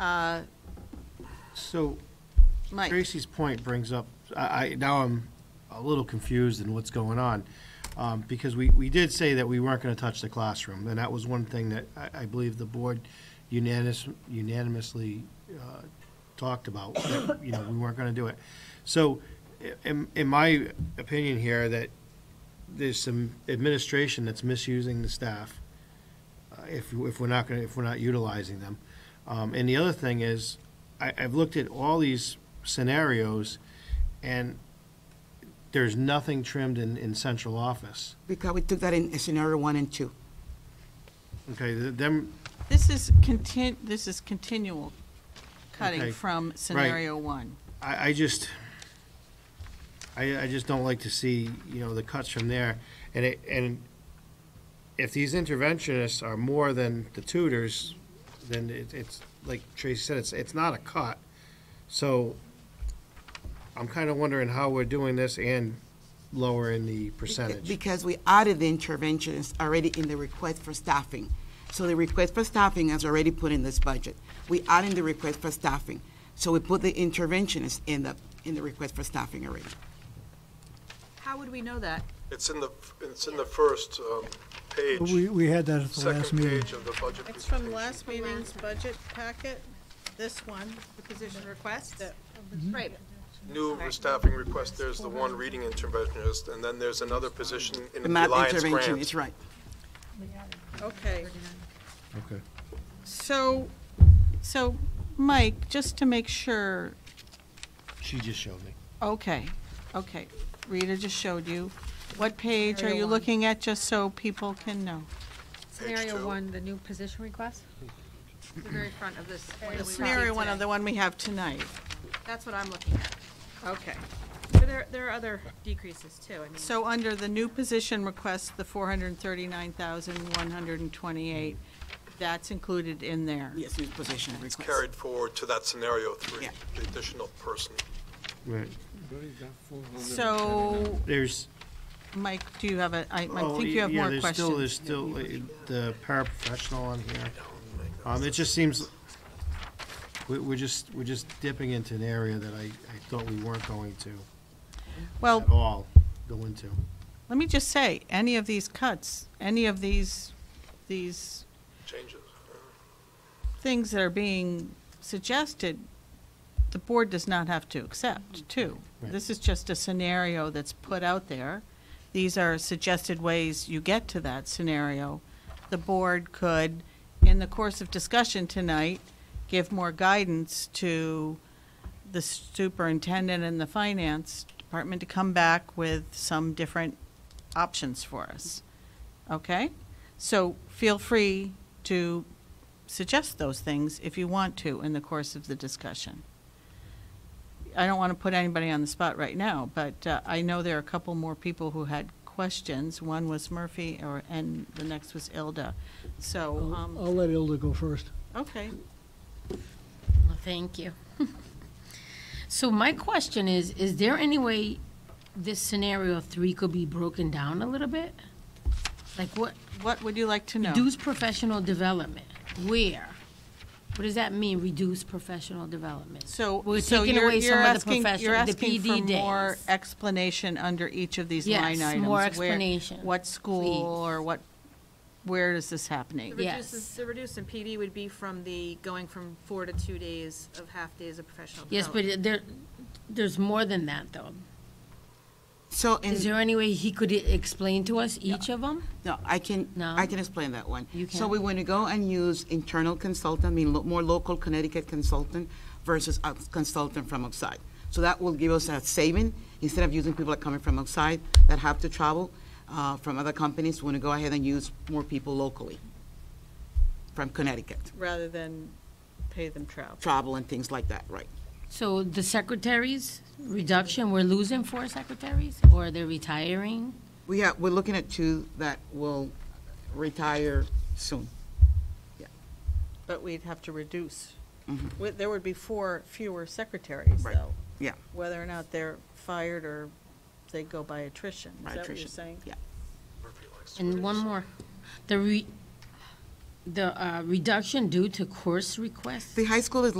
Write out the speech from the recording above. Uh, So Mike, Tracy's point brings up, I, I, now I'm a little confused in what's going on. Um, because we, we did say that we weren't gonna touch the classroom, and that was one thing that I, I believe the board unanimous, unanimously, uh, talked about, that, you know, we weren't gonna do it. So, i- in, in my opinion here, that there's some administration that's misusing the staff, uh, if, if we're not gonna, if we're not utilizing them. Um, and the other thing is, I, I've looked at all these scenarios, and there's nothing trimmed in, in central office. Because we took that in scenario one and two. Okay, th- them, this is contin, this is continual cutting Okay. from scenario one. I, I just, I, I just don't like to see, you know, the cuts from there. And it, and if these interventionists are more than the tutors, then it, it's, like Tracy said, it's, it's not a cut. So I'm kind of wondering how we're doing this and lowering the percentage. Because we added the interventions already in the request for staffing. So the request for staffing is already put in this budget. We added the request for staffing. So we put the interventionist in the, in the request for staffing already. How would we know that? It's in the, it's in the first um, We, page, we had that at the last second meeting. page of the budget It's from presentation. last meeting's budget packet, this one, the position request. Right, New staffing request, there's the one reading interventionist, and then there's another position in The the math Alliance intervention grant. is right. Okay, Okay. So, so, Mike, just to make sure, She just showed me. okay, okay, Rita just showed you. What page are you looking at, just so people can know? two. scenario one, the new position request, the very front of this. one that we The received scenario one of today. the one we have tonight. That's what I'm looking at. Okay. But there, there are other decreases too, I mean. So under the new position request, the four hundred and thirty-nine thousand, one hundred and twenty-eight, that's included in there. Yes, new position request. It's carried forward to that scenario three, Yeah. the additional person. Right. So, There's, Mike, do you have a, I, I Oh, think you have yeah, more there's still- questions. There's still uh, the paraprofessional on here. Um, it just seems, we, we're just, we're just dipping into an area that I, I thought we weren't going to at Well, all go into. let me just say, any of these cuts, any of these, these Changes. things that are being suggested, the board does not have to accept, too. Right. This is just a scenario that's put out there. These are suggested ways you get to that scenario. The board could, in the course of discussion tonight, give more guidance to the superintendent and the finance department to come back with some different options for us. Okay? So feel free to suggest those things if you want to in the course of the discussion. I don't want to put anybody on the spot right now, but uh, I know there are a couple more people who had questions. One was Murphy, or, and the next was Ilda. So, I'll um, I'll let Ilda go first. okay, Well, Thank you. So my question is, is there any way this scenario three could be broken down a little bit? Like what, what would you like to know? reduce professional development, where? What does that mean, reduce professional development? So, We're so taking you're, away you're some of the asking, you're profession- the asking for PD more days. explanation under each of these Yes, line items? more where- explanation, What school or what, where is this happening? The Yes. reduces, the reduce in PD would be from the, going from four to two days of half-days of professional Yes, development. but there, there's more than that, though. So, in- Is there any way he could e-, explain to us each of them? no, I can, No. I can explain that one. You So can. we want to go and use internal consultant, I mean, lo- more local Connecticut consultant versus a consultant from outside. So that will give us a saving, instead of using people that coming from outside that have to travel uh, from other companies, we want to go ahead and use more people locally from Connecticut, Rather than pay them travel. travel and things like that, right? So the secretaries, reduction, we're losing four secretaries, or they're retiring? We have, we're looking at two that will retire soon. But we'd have to reduce. Wi- There would be four fewer secretaries, Right. though. Yeah. Whether or not they're fired or they go by attrition. Is by that what you're attrition. saying? Yeah. Murphy likes to And one reduce. more, the re, the uh, reduction due to course requests? The high school is